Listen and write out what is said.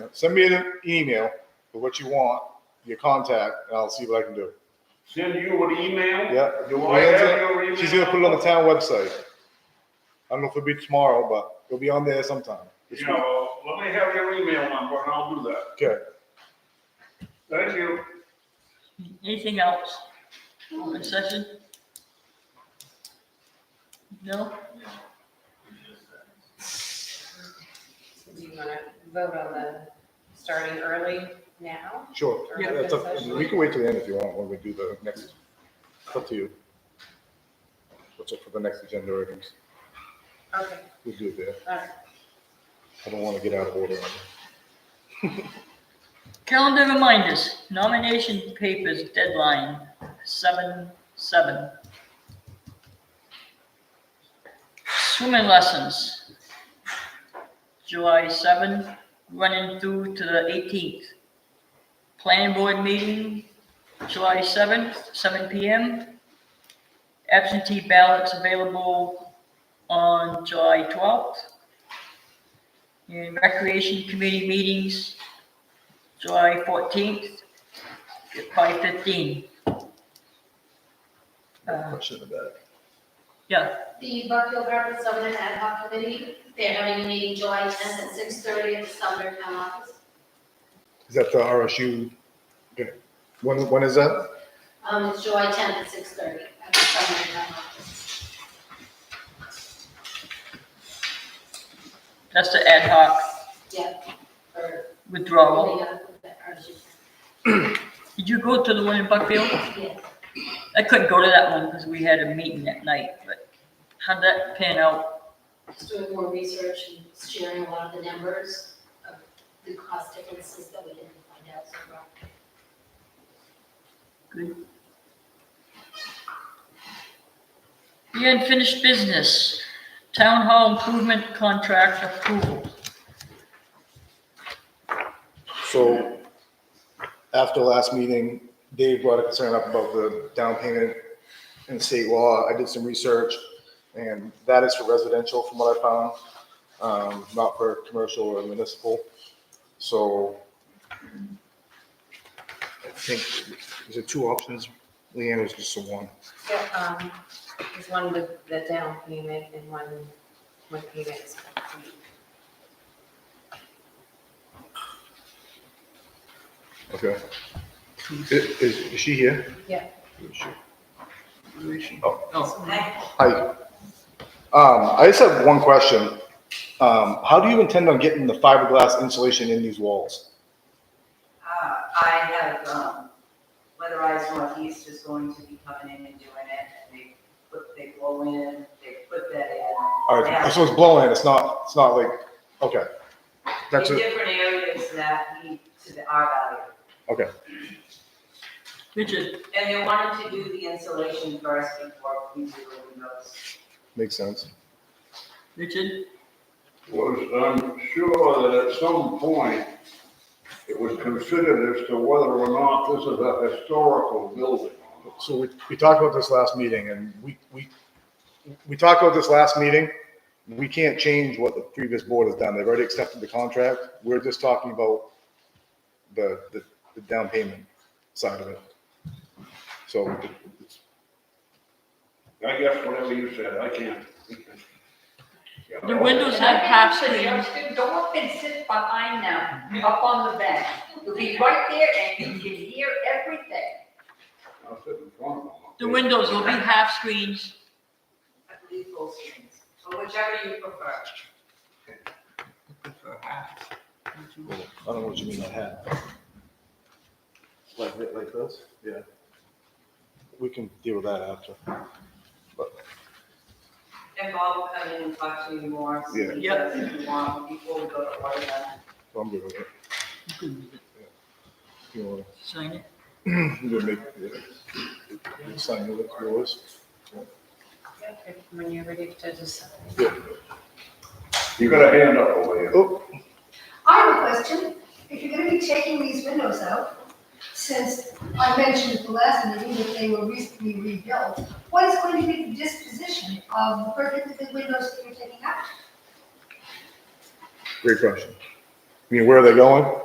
Send me an email with what you want, your contact, and I'll see what I can do. Send you an email? Yeah. Do I have your email? She's gonna put it on the town website. I don't know if it'll be tomorrow, but it'll be on there sometime. this You week. know, let me have your email number and I'll do that. Okay. Thank you. Anything else? Open session? No? Do you wanna vote on the starting early now? Sure. Yeah. That's up- We can wait till the end if you want, when we do the next, it's up to you. What's up for the next agenda items? Okay, We'll do it there. all right. I don't want to get out of order. Calendar reminders, nomination papers deadline, seven, seven. Swimming lessons, July seven, running through to the eighteenth. Planning board meeting, July seventh, seven P M. Absentee ballots available on July twelfth. And recreation committee meetings, July fourteenth, five fifteen. Uh, No Uh, Question about it. Yeah, The Buckfield Garden Summer Ad Hoc Committee, they're having a meeting July tenth at six thirty at the Sumner Town Office. Is that the RSU? Okay. When, when is that? Um, it's July tenth at six thirty at the Sumner Town Office. that's the ad hoc Yep. Or, withdrawal. yeah, or she- Did you go to the one in Buckfield? yeah. I couldn't go to that one because we had a meeting that night, but how'd that pan out? Just doing more research and sharing a lot of the numbers of the cost differences that we didn't find out so far. The unfinished business, town hall improvement contract approval. So after last meeting, Dave brought a concern up about the down payment in state law. I did some research and that is for residential from what I found, um, not for commercial or municipal. So I think, is it two options? Leanne was just the one. So, um, there's one with the down payment and one, one payment is complete. Okay. I- Is, is she here? Yeah. Is she- Where is she? Oh. Oh, Hi. Um, I just have one question. Um, how do you intend on getting the fiberglass insulation in these walls? Uh, I have, um, Weatherized Northeast is going to be coming in and doing it, and they put, they blow in, they put that in. All right, so it's blowing, it's not, it's not like, okay. That's In it, different areas that need to the R value. okay, Richard, And they wanted to do the insulation first before we do the windows. makes sense. Richard, was, I'm sure that at some point, it was considered as to whether or not this is a historical building. So we, we talked about this last meeting and we, we, we talked about this last meeting. We can't change what the previous board has done. They've already accepted the contract. We're just talking about the, the, the down payment side of it. So it's, I guess whatever you said, I can't. the windows And I have have half suggested screens. Go up and sit behind them, up on the bench. You'll be right there and you can hear everything. I'll sit in front of them. The windows will be half screens. I believe full screens, or whichever you prefer. I don't know what you mean by hat. Like, thi- like this? Yeah. We can deal with that after. And Bob will come in and talk to you more, see Yeah. Yep. what you want before we go to order them. I'm good with it. You wanna- Sign it. you gonna make, yeah. You sign it with yours? Yep, When you're ready to decide. Yeah. You got a hand up over here. Oh, I have a question. If you're gonna be taking these windows out, since I mentioned at the last meeting that they were recently rebuilt, what is going to be the disposition of the perfectly good windows that you're taking out? great question. I mean, where are they going?